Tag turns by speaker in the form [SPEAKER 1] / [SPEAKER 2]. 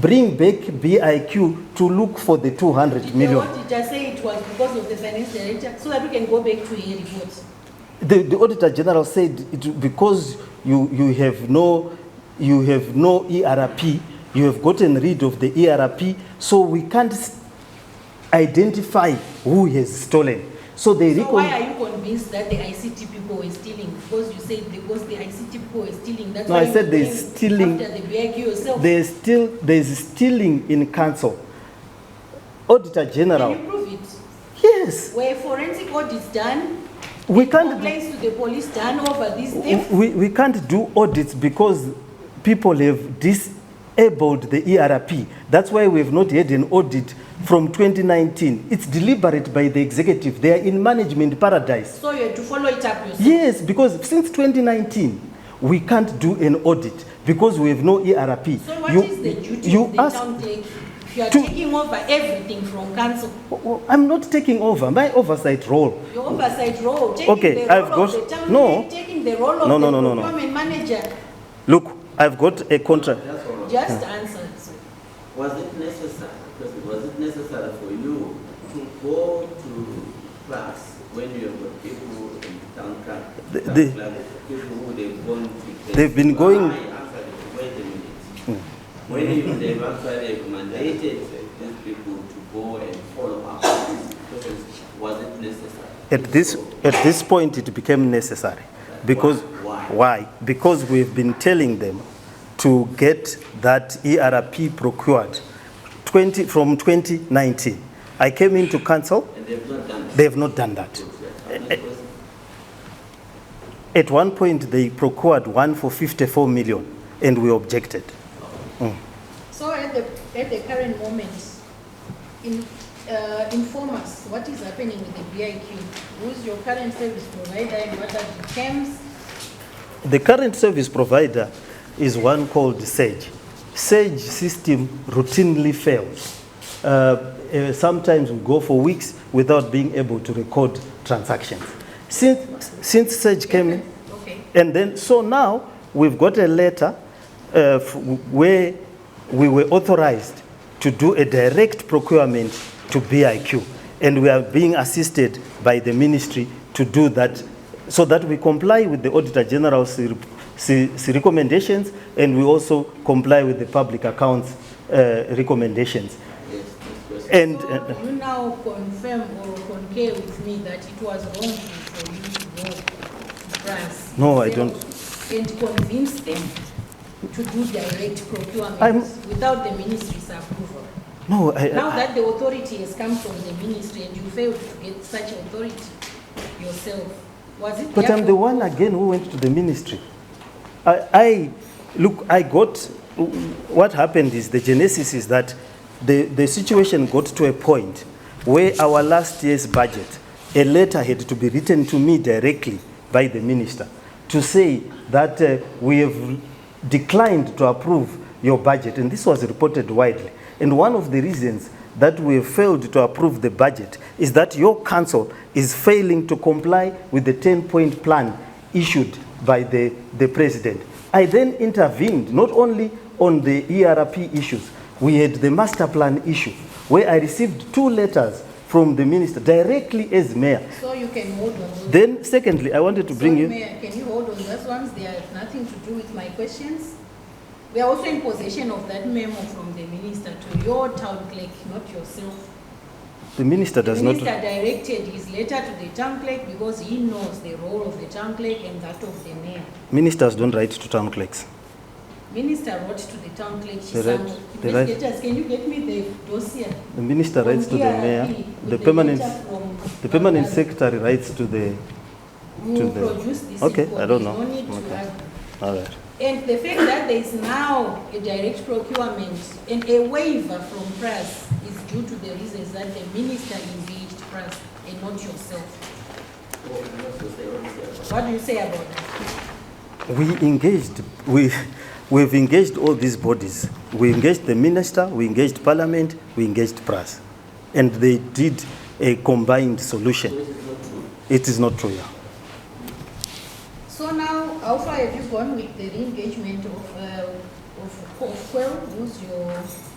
[SPEAKER 1] bring back BIQ to look for the 200 million.
[SPEAKER 2] What did I say it was because of the finance director, so that we can go back to a report.
[SPEAKER 1] The, the Auditor General said it, because you, you have no you have no ERP, you have gotten rid of the ERP, so we can't s- identify who has stolen. So they
[SPEAKER 2] So
[SPEAKER 1] recon-
[SPEAKER 2] why are you convinced that the ICT people were stealing? Because you said because the ICT people were stealing, that's
[SPEAKER 1] No,
[SPEAKER 2] why
[SPEAKER 1] I
[SPEAKER 2] you
[SPEAKER 1] said they're
[SPEAKER 2] came
[SPEAKER 1] stealing-
[SPEAKER 2] After the BIQ yourself.
[SPEAKER 1] there's still there's stealing in council. Auditor
[SPEAKER 2] Can
[SPEAKER 1] General,
[SPEAKER 2] you prove it?
[SPEAKER 1] yes,
[SPEAKER 2] Were forensic audits done,
[SPEAKER 1] we can't
[SPEAKER 2] complaints to the police done over this thing?
[SPEAKER 1] we, we can't do audits because people have disabled the ERP. That's why we've not had an audit from 2019. It's deliberate by the executive. They are in management paradise.
[SPEAKER 2] So you had to follow it up yourself?
[SPEAKER 1] Yes, because since 2019, we can't do an audit because we have no ERP.
[SPEAKER 2] So what
[SPEAKER 1] You-
[SPEAKER 2] is the duty
[SPEAKER 1] you
[SPEAKER 2] of the
[SPEAKER 1] ask-
[SPEAKER 2] town clerk? If you are
[SPEAKER 1] to-
[SPEAKER 2] taking over everything from council,
[SPEAKER 1] I'm not taking over. My oversight role
[SPEAKER 2] your oversight role,
[SPEAKER 1] Okay,
[SPEAKER 2] taking the
[SPEAKER 1] I've
[SPEAKER 2] role of
[SPEAKER 1] got-
[SPEAKER 2] the town
[SPEAKER 1] no.
[SPEAKER 2] clerk, taking the role of
[SPEAKER 1] No,
[SPEAKER 2] the
[SPEAKER 1] no, no, no, no.
[SPEAKER 2] procurement manager,
[SPEAKER 1] Look, I've got a contract.
[SPEAKER 3] That's all right.
[SPEAKER 2] just answer. So
[SPEAKER 3] Was it necessary, because was it necessary for you to go to class when you were people in town clerk?
[SPEAKER 1] The-
[SPEAKER 3] town
[SPEAKER 1] the-
[SPEAKER 3] clerk, People who they've gone to.
[SPEAKER 1] They've been going-
[SPEAKER 3] Why actually, Wait a minute. When you, they've actually mandated these people to go and follow up, because was it necessary?
[SPEAKER 1] At this,
[SPEAKER 3] So,
[SPEAKER 1] at this point, it became necessary. Because,
[SPEAKER 3] Why?
[SPEAKER 1] why? Because we've been telling them to get that ERP procured 20, from 2019. I came into council,
[SPEAKER 3] And they've not done it.
[SPEAKER 1] they have not done that. At one point, they procured one for 54 million, and we objected.
[SPEAKER 2] so at the, at the current moment, in, uh, inform us, what is happening with the BIQ? Who's your current service provider and what are the terms?
[SPEAKER 1] The current service provider is one called Sage. Sage system routinely fails. Uh, uh, sometimes we go for weeks without being able to record transactions. Since, since Sage came in,
[SPEAKER 2] Okay.
[SPEAKER 1] and then, so now we've got a letter uh, f- where we were authorized to do a direct procurement to BIQ. And we are being assisted by the ministry to do that so that we comply with the Auditor General's re- se- se- recommendations and we also comply with the public accounts uh, recommendations.
[SPEAKER 3] Yes, this question.
[SPEAKER 1] And
[SPEAKER 2] So
[SPEAKER 1] uh,
[SPEAKER 2] you now confirm or concur with me that it was wrong for you to go to France?
[SPEAKER 1] No, I
[SPEAKER 2] yourself And convince them to do direct procurement
[SPEAKER 1] I'm-
[SPEAKER 2] without the ministry's approval?
[SPEAKER 1] no, I,
[SPEAKER 2] Now
[SPEAKER 1] I-
[SPEAKER 2] that the authority has come from the ministry and you failed to get such authority yourself, was it?
[SPEAKER 1] But I'm the
[SPEAKER 2] therefore-
[SPEAKER 1] one again who went to the ministry. I, I look, I got what happened is the genesis is that the, the situation got to a point where our last year's budget, a letter had to be written to me directly by the minister to say that uh, we have declined to approve your budget, and this was reported widely. And one of the reasons that we have failed to approve the budget is that your council is failing to comply with the 10-point plan issued by the, the president. I then intervened not only on the ERP issues, we had the master plan issue, where I received two letters from the minister directly as mayor.
[SPEAKER 2] So you can hold on.
[SPEAKER 1] Then, secondly, I wanted to bring
[SPEAKER 2] Sorry,
[SPEAKER 1] you.
[SPEAKER 2] Mayor, can you hold on those ones? They have nothing to do with my questions. We are also in possession of that memo from the minister to your town clerk, not yourself.
[SPEAKER 1] The minister
[SPEAKER 2] The
[SPEAKER 1] does not.
[SPEAKER 2] minister directed his letter to the town clerk because he knows the role of the town clerk and that of the mayor.
[SPEAKER 1] Ministers don't write to town clerks.
[SPEAKER 2] Minister wrote to the town clerk, she
[SPEAKER 1] They
[SPEAKER 2] said,
[SPEAKER 1] write- they write-
[SPEAKER 2] investigators, can you get me the dossier?
[SPEAKER 1] The minister writes to the mayor.
[SPEAKER 2] E,
[SPEAKER 1] The permanent, the permanent secretary writes to the. to the- Okay, I don't know. Okay. All right.
[SPEAKER 2] And the fact that there is now a direct procurement and a waiver from press is due to the reasons that the minister engaged press and not yourself.
[SPEAKER 3] Oh, I'm not so sure
[SPEAKER 2] What
[SPEAKER 3] what you said.
[SPEAKER 2] do you say about that?
[SPEAKER 1] We engaged, we, we've engaged all these bodies. We engaged the minister, we engaged parliament, we engaged press. And they did a combined solution.
[SPEAKER 3] This is not true.
[SPEAKER 1] It is not true, yeah.
[SPEAKER 2] So now, how far have you gone with the re-engagement of, uh, of Kwel, who's your